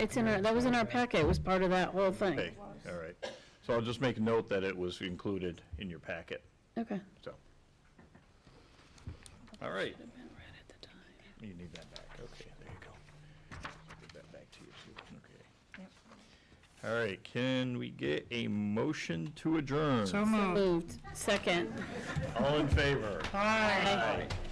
It's in our, that was in our packet, it was part of that whole Okay, thing. all right. So I'll just make note that it was included in your packet, Okay. so. All right, Been read at the time. you need that back, okay, there you go. Give that back to you, Sue, okay. All right, can we get a motion to adjourn? So moved. Moved, second. All in favor? Aye. Aye.